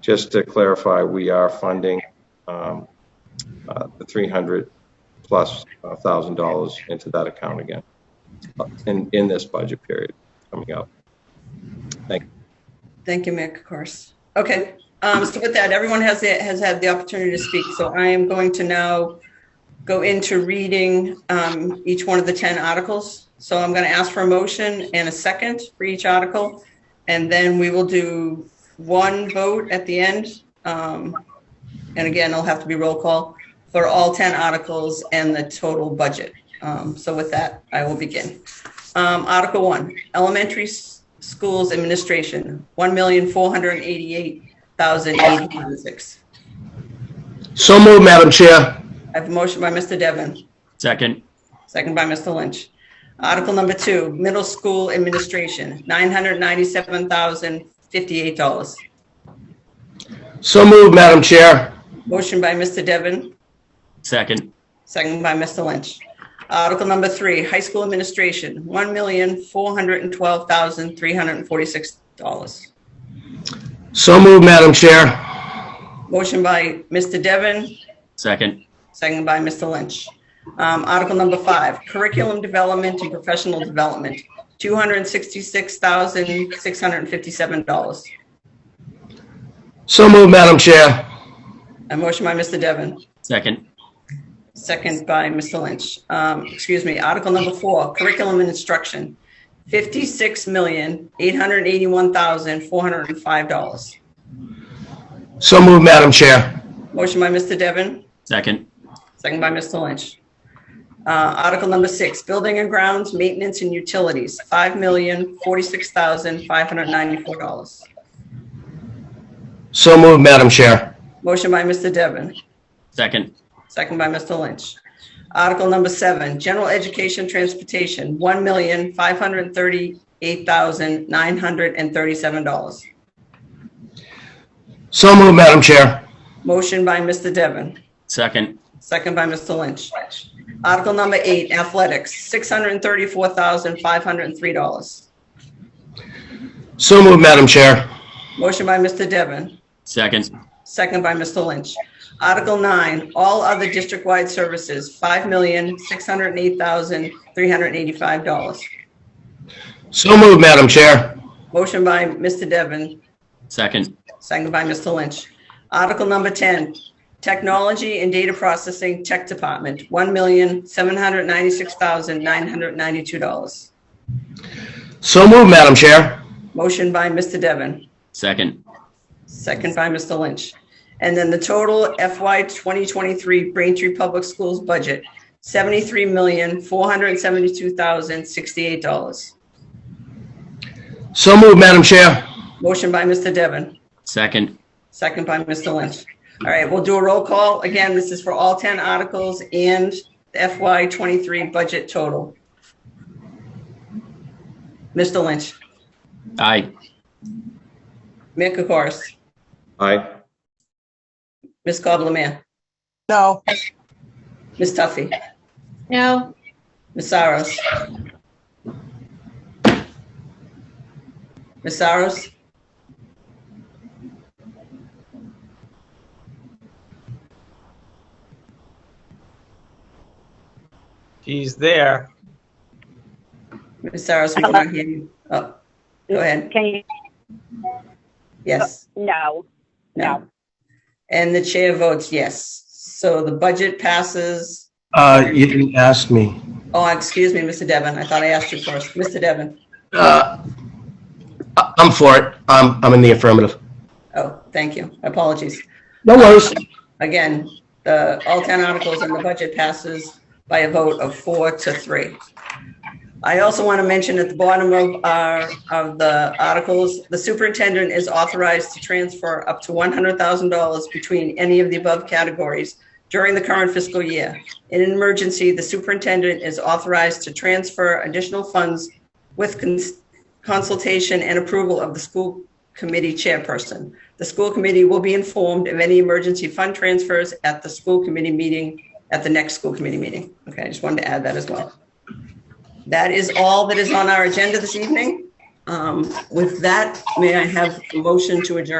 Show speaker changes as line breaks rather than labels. just to clarify, we are funding um, uh, the 300 plus uh, thousand dollars into that account again uh, in, in this budget period coming up.
Thank you, Mick, of course. Okay, um, so with that, everyone has, the- has had the opportunity to speak, so I am going to now go into reading, um, each one of the 10 articles. So I'm gonna ask for a motion and a second for each article, and then we will do one vote at the end. Um, and again, it'll have to be roll call for all 10 articles and the total budget. Um, so with that, I will begin. Um, Article one, elementary s- schools administration, one million four hundred and eighty-eight thousand eighty-six.
So moved, Madam Chair.
I have a motion by Mr. Devon,
Second,
second by Mr. Lynch. Article number two, middle school administration, nine hundred ninety-seven thousand fifty-eight dollars.
So moved, Madam Chair.
Motion by Mr. Devon,
second,
second by Mr. Lynch. Article number three, high school administration, one million four hundred and twelve thousand three hundred and forty-six dollars.
So moved, Madam Chair.
Motion by Mr. Devon,
second,
Second by Mr. Lynch. Um, Article number five, curriculum development and professional development, $266,657.
So moved, Madam Chair.
A motion by Mr. Devon,
second,
second by Mr. Lynch. Um, Excuse me, Article number four, curriculum and instruction, $56,881,405.
So moved, Madam Chair.
Motion by Mr. Devon,
second,
Second by Mr. Lynch. Uh, Article number six, building and grounds, maintenance and utilities, five million, forty-six thousand, five hundred ninety-four dollars.
So moved, Madam Chair.
Motion by Mr. Devon,
second,
second by Mr. Lynch. Article number seven, general education transportation, one million, five hundred thirty-eight thousand, nine hundred and thirty-seven dollars.
So moved, Madam Chair.
Motion by Mr. Devon,
second,
second by Mr. Lynch. Article number eight, athletics, six hundred thirty-four thousand, five hundred three dollars.
So moved, Madam Chair.
Motion by Mr. Devon,
second,
second by Mr. Lynch. Article nine, all other district-wide services, five million, six hundred and eight thousand, three hundred and eighty-five dollars.
So moved, Madam Chair.
Motion by Mr. Devon,
second,
second by Mr. Lynch. Article number ten, technology and data processing tech department, one million, seven hundred ninety-six thousand, nine hundred ninety-two dollars.
So moved, Madam Chair.
Motion by Mr. Devon,
second,
Second by Mr. Lynch. And then the total FY 2023 Braintree Public Schools budget, $73,472,068.
So moved, Madam Chair.
Motion by Mr. Devon,
second,
second by Mr. Lynch. All right, we'll do a roll call. Again, this is for all 10 articles and the FY 23 budget total. Mr. Lynch,
aye,
Mick Kokoris,
Aye.
Ms. Coble Mayor,
No,
Ms. Tuffy,
No,
Ms. Saros. Ms. Saros?
She's there.
Ms. Saros, we cannot hear you. Oh, go ahead.
Can you,
Yes,
no,
no. And the chair votes yes. So the budget passes.
Uh, you didn't ask me.
Oh, excuse me, Mr. Devon. I thought I asked you first. Mr. Devon.
Uh, I- I'm for it. I'm, I'm in the affirmative.
Oh, thank you. Apologies.
No worries.
Again, the, all 10 articles in the budget passes by a vote of four to three. I also want to mention at the bottom of our, of the articles, the superintendent is authorized to transfer up to $100,000 between any of the above categories during the current fiscal year. In an emergency, the superintendent is authorized to transfer additional funds with cons- consultation and approval of the school committee chairperson. The school committee will be informed of any emergency fund transfers at the school committee meeting, at the next school committee meeting. Okay, I just wanted to add that as well. That is all that is on our agenda this evening. Um, With that, may I have a motion to adjourn?